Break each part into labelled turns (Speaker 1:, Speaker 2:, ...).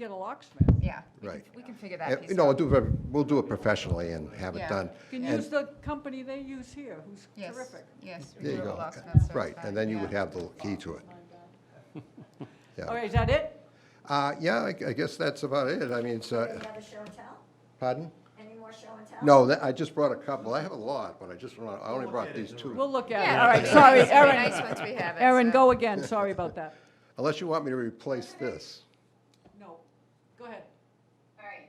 Speaker 1: get a locksmith.
Speaker 2: Yeah. we can-
Speaker 3: Right.
Speaker 2: We can figure
Speaker 3: Uh,
Speaker 2: that piece
Speaker 3: No, we'll
Speaker 2: out.
Speaker 3: do, it- we'll do it professionally and have it
Speaker 2: Yeah.
Speaker 3: done.
Speaker 1: You can
Speaker 3: And-
Speaker 1: use the company they use here, who's
Speaker 2: Yes,
Speaker 1: terrific.
Speaker 2: Yes. we
Speaker 3: There you
Speaker 2: do a
Speaker 3: go.
Speaker 2: locksmith service
Speaker 3: Right,
Speaker 2: back,
Speaker 3: and then you
Speaker 2: yeah.
Speaker 3: would have the key to it.
Speaker 1: All
Speaker 3: Yeah,
Speaker 1: right, is that it?
Speaker 3: Uh, yeah, I I guess that's about it. I mean, it's,
Speaker 4: Do
Speaker 3: uh,
Speaker 4: you have a show and tell?
Speaker 3: pardon?
Speaker 4: Any more show and tell?
Speaker 3: No, that- I just brought a couple. I have a lot, but I just, wanna- I only brought these two.
Speaker 1: We'll look at it.
Speaker 2: Yeah,
Speaker 1: All right,
Speaker 2: it's
Speaker 1: sorry,
Speaker 2: pretty Nice
Speaker 1: Erin.
Speaker 2: once we have it.
Speaker 1: Erin,
Speaker 2: so-
Speaker 1: go again. Sorry about that.
Speaker 3: Unless you want me to replace this.
Speaker 1: No, go ahead.
Speaker 5: All right.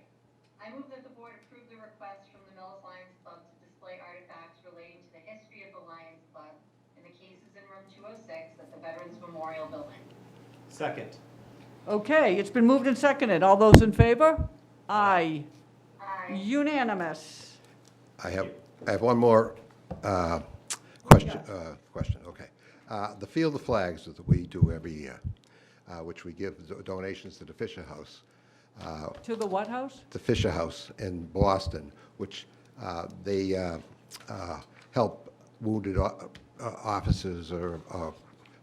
Speaker 5: I move that the board approve the request from the Millis Lions Club to display artifacts relating to the history of the Lions Club in the cases in room 206 at the Veterans Memorial Building.
Speaker 6: Second.
Speaker 1: Okay, it's been moved and seconded. All those in favor? Aye.
Speaker 5: Aye.
Speaker 1: Unanimous.
Speaker 3: I have, I have one more uh, question, uh, question, okay. Uh, The Field of Flags that we do every year, uh, which we give do- donations to the Fisher House, uh,
Speaker 1: To the what house?
Speaker 3: the Fisher House in Boston, which uh, they uh, uh, help wounded o- uh, officers or uh,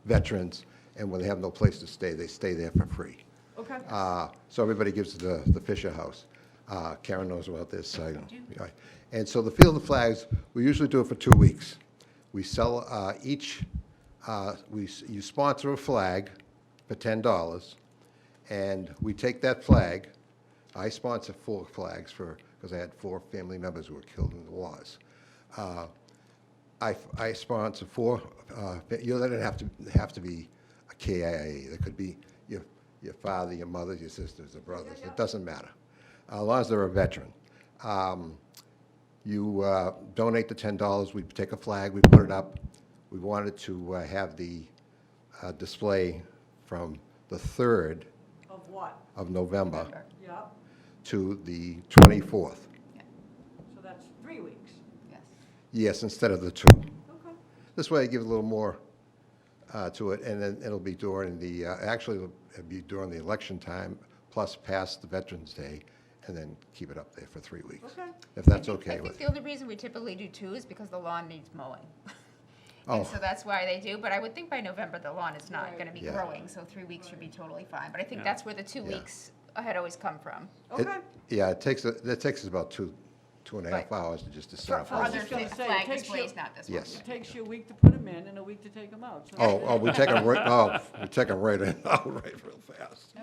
Speaker 3: veterans, and when they have no place to stay, they stay there for free.
Speaker 1: Okay.
Speaker 3: Uh, So everybody gives to the, the Fisher House. Uh, Karen knows about this. I- I- And so the Field of Flags, we usually do it for two weeks. We sell uh, each, uh, we, s- you sponsor a flag for $10, and we take that flag. I sponsor four flags for, because I had four family members who were killed in the wars. Uh, I, I sponsor four, uh, you know, they don't have to, have to be a KIA. It could be your, your father, your mother, your sisters, or brothers. It doesn't matter, as long as they're a veteran. Um, You uh, donate the ten dollars, we take a flag, we put it up. We wanted to uh, have the uh, display from the third
Speaker 1: Of what?
Speaker 3: of November
Speaker 1: Yeah,
Speaker 3: to the twenty-fourth.
Speaker 1: so that's three weeks.
Speaker 2: Yes.
Speaker 3: Yes, instead of the two.
Speaker 1: Okay.
Speaker 3: This way, I give a little more uh, to it, and then it'll be during the, uh, actually, it'll be during the election time, plus past the Veterans Day, and then keep it up there for three weeks.
Speaker 1: Okay.
Speaker 3: If that's
Speaker 2: I
Speaker 3: okay
Speaker 2: think
Speaker 3: with
Speaker 2: the
Speaker 3: you.
Speaker 2: only reason we typically do two is because the lawn needs mowing.
Speaker 3: Oh.
Speaker 2: And so that's why they do, but I would think by November, the lawn is not gonna be
Speaker 3: Yeah.
Speaker 2: growing, so three weeks should be totally fine. But I think
Speaker 6: Yeah.
Speaker 2: that's where the two
Speaker 3: Yeah.
Speaker 2: weeks had always come from.
Speaker 3: It-
Speaker 1: Okay.
Speaker 3: Yeah, it takes, that takes us about two, two and a half
Speaker 2: Right.
Speaker 3: hours to just to set up.
Speaker 2: For
Speaker 1: I was
Speaker 3: all
Speaker 2: other
Speaker 3: this.
Speaker 1: just gonna
Speaker 2: fi-
Speaker 1: say, it
Speaker 2: flag
Speaker 1: takes you-
Speaker 2: displays, not this one.
Speaker 3: Yes.
Speaker 1: It takes you a week to put them in and a week to take them out. so-
Speaker 3: Oh, oh, we take them right, oh, we take them right in, oh, right real fast.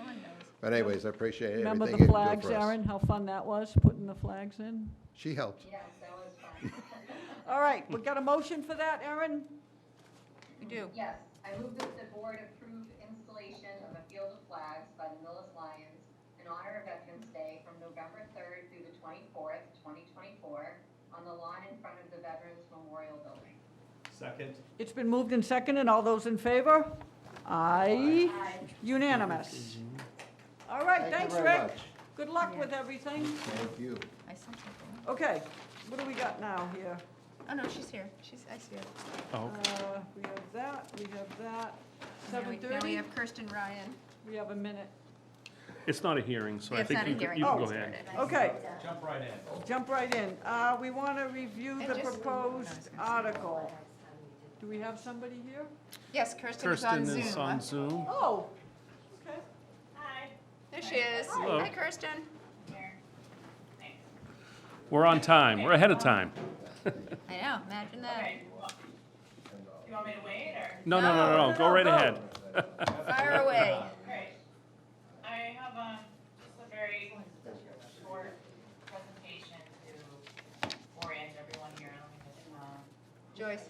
Speaker 3: But anyways, I appreciate everything.
Speaker 1: Remember
Speaker 3: you
Speaker 1: the
Speaker 3: do
Speaker 1: flags,
Speaker 3: for us.
Speaker 1: Erin, how fun that was, putting the flags in?
Speaker 3: She helped.
Speaker 5: Yes, that was fun.
Speaker 1: All right, we got a motion for that, Erin?
Speaker 2: We do.
Speaker 5: Yes, I move that the board approve installation of a field of flags by the Millis Lions in honor of Veterans Day from November 3rd through the 24th, 2024, on the lawn in front of the Veterans Memorial Building.
Speaker 6: Second.
Speaker 1: It's been moved and seconded, all those in favor? Aye. Unanimous. All right,
Speaker 3: Thank you
Speaker 1: thanks,
Speaker 3: very
Speaker 1: Rick.
Speaker 3: much.
Speaker 1: Good luck with everything.
Speaker 3: Thank you.
Speaker 2: I said something.
Speaker 1: Okay, what do we got now here?
Speaker 2: Oh, no, she's here. She's, I see her.
Speaker 6: Oh,
Speaker 1: Uh, We have that, we have that,
Speaker 2: Now we- Now we
Speaker 1: 7:30,
Speaker 2: have Kirsten Ryan.
Speaker 1: we have a minute.
Speaker 6: It's not a hearing, so I
Speaker 2: Oh, It's
Speaker 6: think
Speaker 2: not a
Speaker 6: you can
Speaker 2: hearing,
Speaker 6: you can
Speaker 2: we
Speaker 6: go
Speaker 2: just
Speaker 6: ahead.
Speaker 2: started.
Speaker 1: Okay,
Speaker 6: Jump right in.
Speaker 1: jump right in. Uh, We want to review
Speaker 2: And
Speaker 1: the
Speaker 2: just-
Speaker 1: proposed article. Do we have somebody here?
Speaker 2: Yes, Kirsten is on
Speaker 6: Kirsten
Speaker 2: Zoom.
Speaker 6: is on Zoom.
Speaker 1: Oh, okay.
Speaker 2: There she is.
Speaker 6: Hello.
Speaker 2: Hi, Kirsten.
Speaker 6: We're on time. We're ahead of time.
Speaker 2: I know, imagine that.
Speaker 5: You want me to wait, or?
Speaker 6: No, no, no, no, no. Go right ahead.
Speaker 2: Fire away.
Speaker 5: Right. I have um, just a very short presentation to orient everyone here. I don't think it's, um,
Speaker 2: Joyce.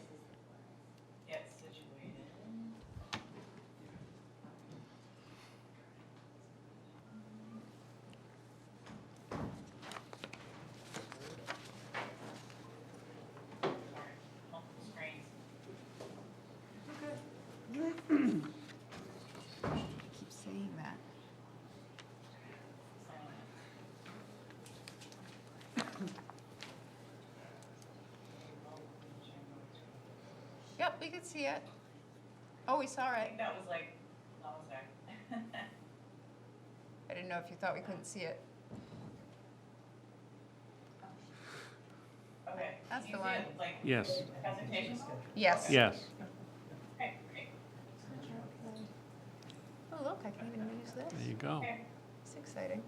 Speaker 5: get situated. Sorry, multiple screens.
Speaker 2: Keep saying that. Yep, we could see it. Oh, we saw
Speaker 5: I
Speaker 2: it.
Speaker 5: think that was like, that was there.
Speaker 2: I didn't know if you thought we couldn't see it.
Speaker 5: Okay.
Speaker 2: That's
Speaker 5: You
Speaker 2: the
Speaker 5: see
Speaker 2: one.
Speaker 5: it, Like,
Speaker 6: Yes,
Speaker 5: presentation?
Speaker 2: Yes.
Speaker 6: yes.
Speaker 5: Okay, great.
Speaker 2: Oh, look, I can even use this.
Speaker 6: There you go.
Speaker 2: Six exciting.